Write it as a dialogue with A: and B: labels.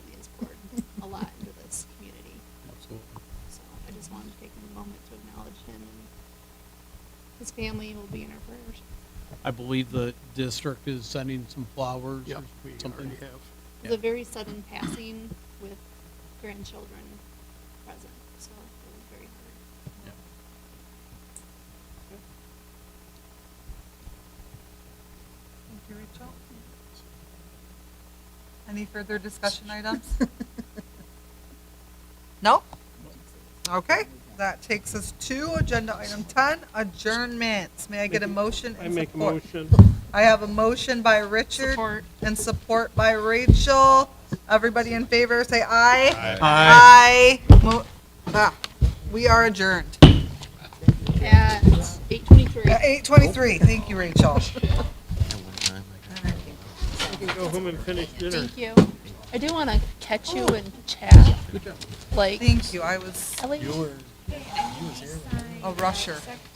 A: just wanted to take a moment to acknowledge him and his family will be in our prayers.
B: I believe the district is sending some flowers
C: Yep,
B: or
C: we
B: something.
C: already have.
A: It was a very sudden passing with grandchildren present, so it was very hard.
D: Thank you, Rachel. Any further discussion items? No? Okay, that takes us to agenda item ten, adjournments. May I get a motion
C: I
D: and
C: make a
D: support?
C: motion.
D: I have a motion by Richard
A: Support.
D: and support by Rachel. Everybody in favor, say aye.
B: Hi.
D: Aye. Mo- ah, We are adjourned.
A: At eight twenty-three.
D: Eight twenty-three, thank you, Rachel.
C: I can go home and finish dinner.
E: Thank you. Oh. I do want to catch you and chat. Like,
D: Thank you, I was
E: Ellie,
D: a rusher.